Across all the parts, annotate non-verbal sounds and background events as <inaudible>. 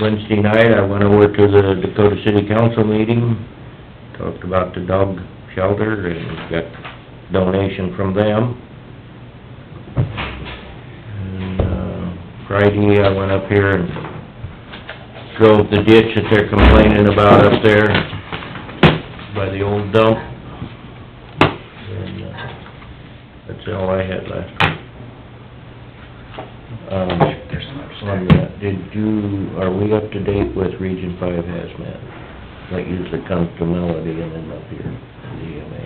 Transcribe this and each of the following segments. Wednesday night, I went over to the Dakota City Council meeting, talked about the dog shelter and got donation from them. And, uh, Friday, I went up here and drove the ditch that they're complaining about up there by the old dump. And, uh, that's all I had last week. Um, on that, did you, are we up to date with Region Five hazmat? That usually comes to Melody and then up here in the EMA.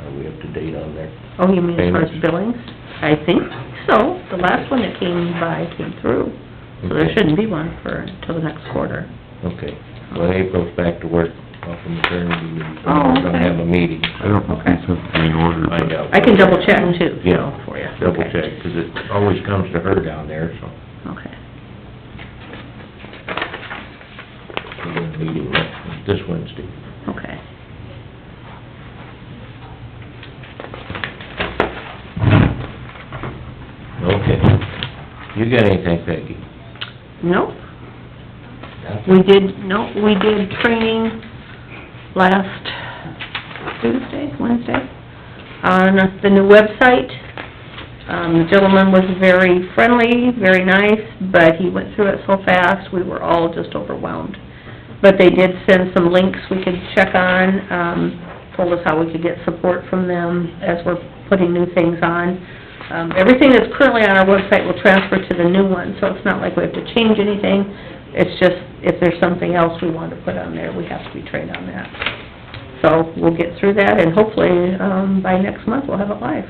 Are we up to date on there? Oh, you mean as far as Payments. billings? I think so, the last one that came by came through, so there Okay. shouldn't be one for, until the next quarter. Okay, well, April's back to work off of maternity leave, so Oh, we're gonna okay. have a meeting. I don't know if these have to be in order, Find but out. I can double check too, so, Yeah. for you. Double Okay. check, 'cause it always comes to her down there, so Okay. we're gonna meeting next- this Wednesday. Okay. Okay. You got anything, Peggy? Nope, we did, no, we did training last Tuesday, Wednesday, on the new website. Um, the gentleman was very friendly, very nice, but he went through it so fast, we were all just overwhelmed. But they did send some links we could check on, um, told us how we could get support from them as we're putting new things on. Um, everything that's currently on our website will transfer to the new one, so it's not like we have to change anything. It's just, if there's something else we want to put on there, we have to be trained on that. So we'll get through that, and hopefully, um, by next month, we'll have it live.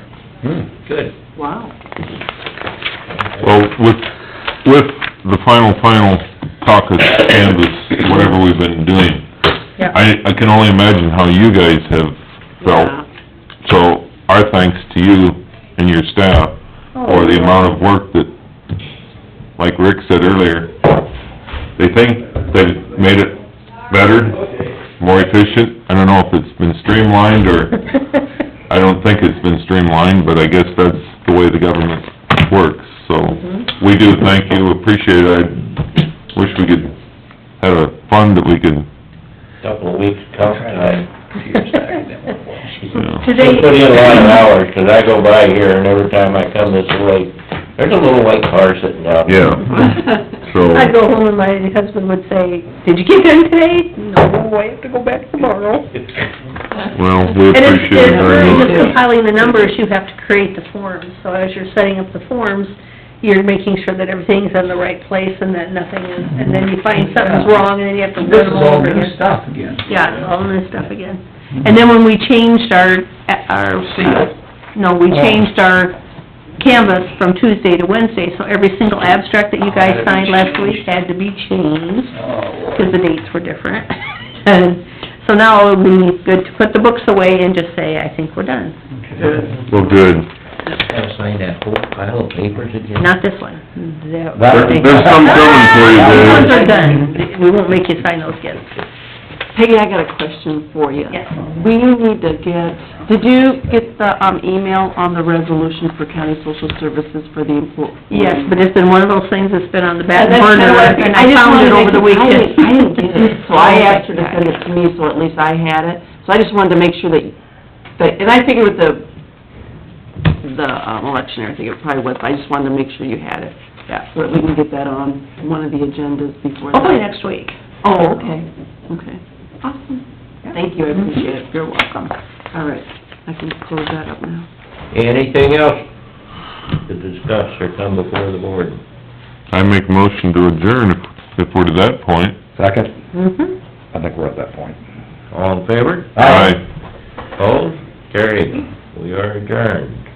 Good. Wow. well, with, with the final, final caucus canvas, whatever we've been doing, Yeah. I, I can only imagine how you guys have felt. So our thanks to you and your staff Oh, for the <laughs> amount of work that, like Rick said earlier, they think they've made it better, more efficient. I don't know if it's been streamlined or I don't think it's been streamlined, but I guess that's the way the government works, so Mhm. we do thank you, appreciate it. I wish we could have a fund that we could, Couple of weeks tough time. <laughs> Yeah. They Today. put in a lot of hours, 'cause I go by here and every time I come this way, there's a little white car sitting out. yeah, So- I'd go home and my husband would say, "Did you get done today?" "No, I have to go back tomorrow." well, we And it's- appreciate it very It's really just much. compiling the numbers, you have to create the forms, so as you're setting up the forms, you're making sure that everything's in the right place and that nothing is, and then you find something's wrong, and then you have to This run is them all over again. new stuff again. Mm-hmm. Yeah, it's all new stuff again. And then when we changed our, our, uh, Seal. no, Oh. we changed our canvas from Tuesday to Wednesday, so every single abstract that you guys Had to be signed last changed. week had to be changed Oh, because the dates were different. <laughs> And so now it would be good to put the books away and just say, I think we're done. good. Well, good. Gotta sign that whole pile of papers again. Not this one. That- That- There- There's some coming for you, Those ones Dave. are done. We won't make you sign those again. <laughs> Peggy, I got a question for you. Yes. We need to get, did you get the, um, email on the resolution for county social services for the employee? Yes, but it's been one of those things that's been on the back That's burner, kinda what and I just found wanted it to over the make- I weekend. didn't- I didn't get it, <laughs> so I asked her to send it to me, so at least I had it. So I just wanted to make sure that, that, and I figured with the, the, um, election, and everything, it probably was, but I just wanted to make sure you had it. Yeah, so that we can get that on one of the agendas before the... Hopefully next week. Oh, okay, okay. Awesome. Thank you, I appreciate it. You're welcome. All right, I can close that up now. Anything else to discuss or come before the board? I make motion to adjourn if- if we're to that point. Second, Mm-hmm. I think we're at that point. All in favor? Aye. Opposed? Carried. We are adjourned.